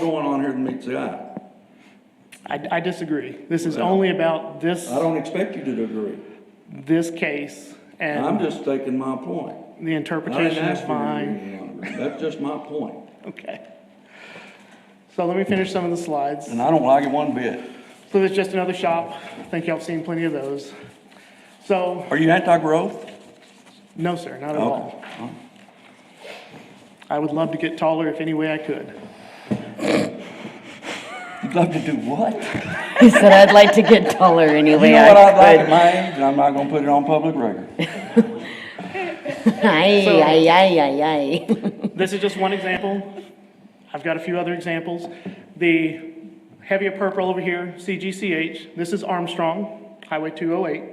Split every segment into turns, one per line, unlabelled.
going on here that meets the eye.
I, I disagree. This is only about this,
I don't expect you to agree.
this case
I'm
and
just taking my point.
the
I didn't
interpretation
ask
of
you to
mine.
agree, Amber. That's just my point.
Okay. So let me finish some of the slides.
And I don't like it one bit.
So there's just another shop. I think y'all have seen plenty of those. So,
Are you anti-growth?
no, sir, not at
Okay.
all. I would love to get taller if any way I could.
You'd love to do what?
He said, I'd like to get taller anyway.
You know what I'd like at
I
my age, and I'm not gonna put it on public record.
could." Ay,
So-
ay, ay, ay, ay.
This is just one example. I've got a few other examples. The heavier purple over here, CGCH, this is Armstrong, Highway 208.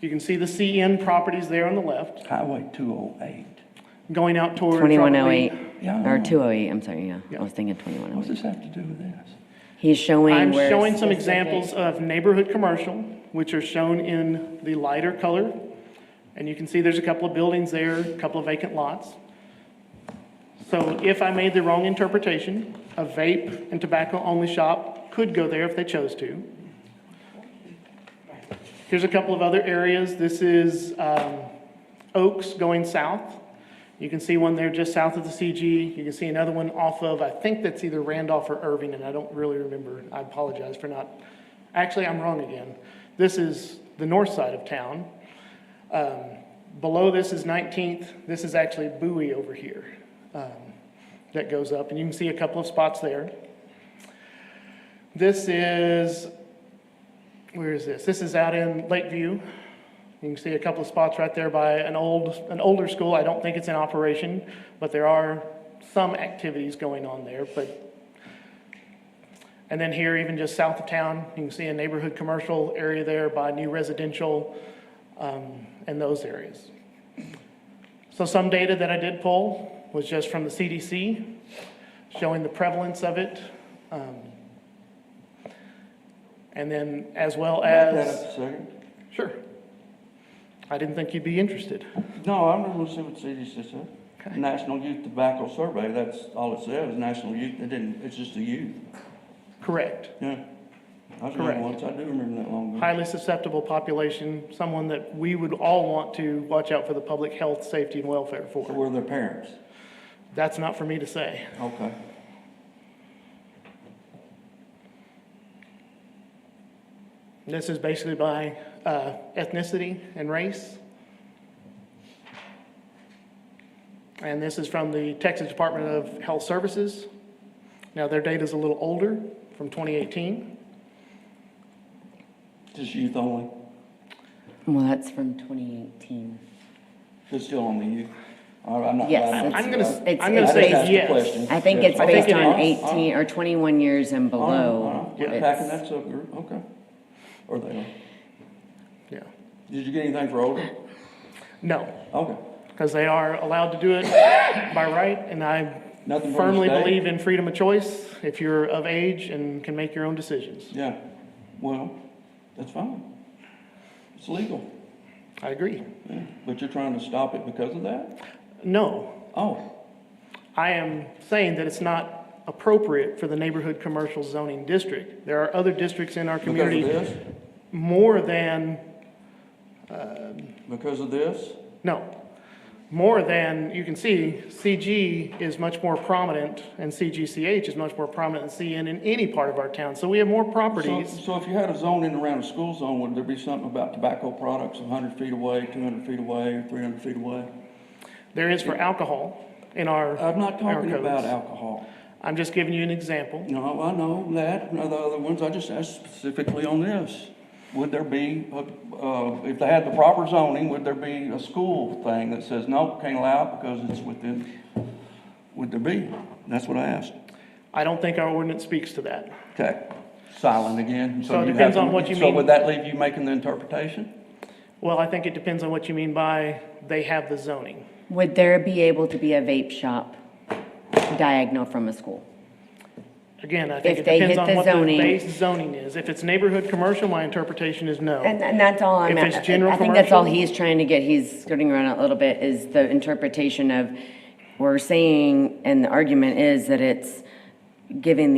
You can see the CN properties there on the left,
Highway two oh eight.
going out towards. probably-
2108,
Yeah, I
or
know.
208, I'm sorry, yeah.
Yeah.
I was thinking
What's
2108.
this have to do with this?
He's showing
I'm
where.
showing some examples of neighborhood commercial, which are shown in the lighter color. And you can see there's a couple of buildings there, a couple of vacant lots. So if I made the wrong interpretation, a vape and tobacco-only shop could go there if they chose to. Here's a couple of other areas. This is um, Oaks going south. You can see one there just south of the CG. You can see another one off of, I think that's either Randolph or Irving, and I don't really remember. I apologize for not, actually, I'm wrong again. This is the north side of town. Um, Below this is 19th. This is actually Bowie over here um, that goes up, and you can see a couple of spots there. This is where is this? This is out in Lakeview. You can see a couple of spots right there by an old, an older school. I don't think it's in operation, but there are some activities going on there, but. And then here, even just south of town, you can see a neighborhood commercial area there by new residential, um, and those areas. So some data that I did pull was just from the CDC, showing the prevalence of it. um, And then as well
Back
as.
that up a second.
Sure. I didn't think you'd be interested.
No, I'm just gonna see what CDC said. National Youth Tobacco Survey, that's all it said, is national youth, it didn't, it's just the youth,
Correct.
yeah. I was
Correct.
young once, I do remember that long ago.
Highly susceptible population, someone that we would all want to watch out for the public health, safety, and welfare
So
for.
were their parents,
That's not for me to say.
okay.
This is basically by uh, ethnicity and race. And this is from the Texas Department of Health Services. Now, their data's a little older, from 2018.
Just youth only,
Well, that's from 2018.
just still on the youth. All right, I'm not.
Yes,
I'm-
it's-
I'm gonna, s-
It's-
I'm gonna
it's
say
based-
That's the question.
yes.
I think it's
I think
based
it
on
is. Oh,
18 or 21 years and
All right, all right.
below.
We're
It's-
packing that subgroup, okay. Or they are.
Yeah.
Did you get anything for older?
No,
Okay.
because they are allowed to do it by right, and I
Nothing from the
firmly
state?
believe in freedom of choice if you're of age and can make your own decisions.
Yeah, well, that's fine. It's legal,
I agree.
yeah. But you're trying to stop it because of that?
No,
Oh,
I am saying that it's not appropriate for the neighborhood commercial zoning district. There are other districts in our
because of
community
this?
more than,
Because of this?
no, more than, you can see, CG is much more prominent and CGCH is much more prominent than CN in any part of our town. So we have more
So,
properties.
so if you had a zone in around a school zone, would there be something about tobacco products hundred feet away, two hundred feet away, three hundred feet away?
There is for alcohol in our.
I'm not
our
talking about
codes.
alcohol.
I'm just giving you an example.
No, I know that, and the other ones, I just asked specifically on this. Would there be, a- uh, if they had the proper zoning, would there be a school thing that says, no, can't allow it because it's within, would there be? That's what I asked.
I don't think our ordinance speaks to that.
Okay, silent again.
So it
you have
depends
to-
on what you
So
mean.
would that leave you making the interpretation?
Well, I think it depends on what you mean by they have the zoning.
Would there be able to be a vape shop diagonal from a school?
Again, I think
If
it
they
depends
hit
on
the
what the
zoning-
base zoning is. If it's neighborhood commercial, my interpretation is no.
And, and that's all I'm,
If
at-
it's
I
general
I think that's all
commercial-
he's trying to get, he's skirting around a little bit, is the interpretation of, we're saying, and the argument is that it's giving the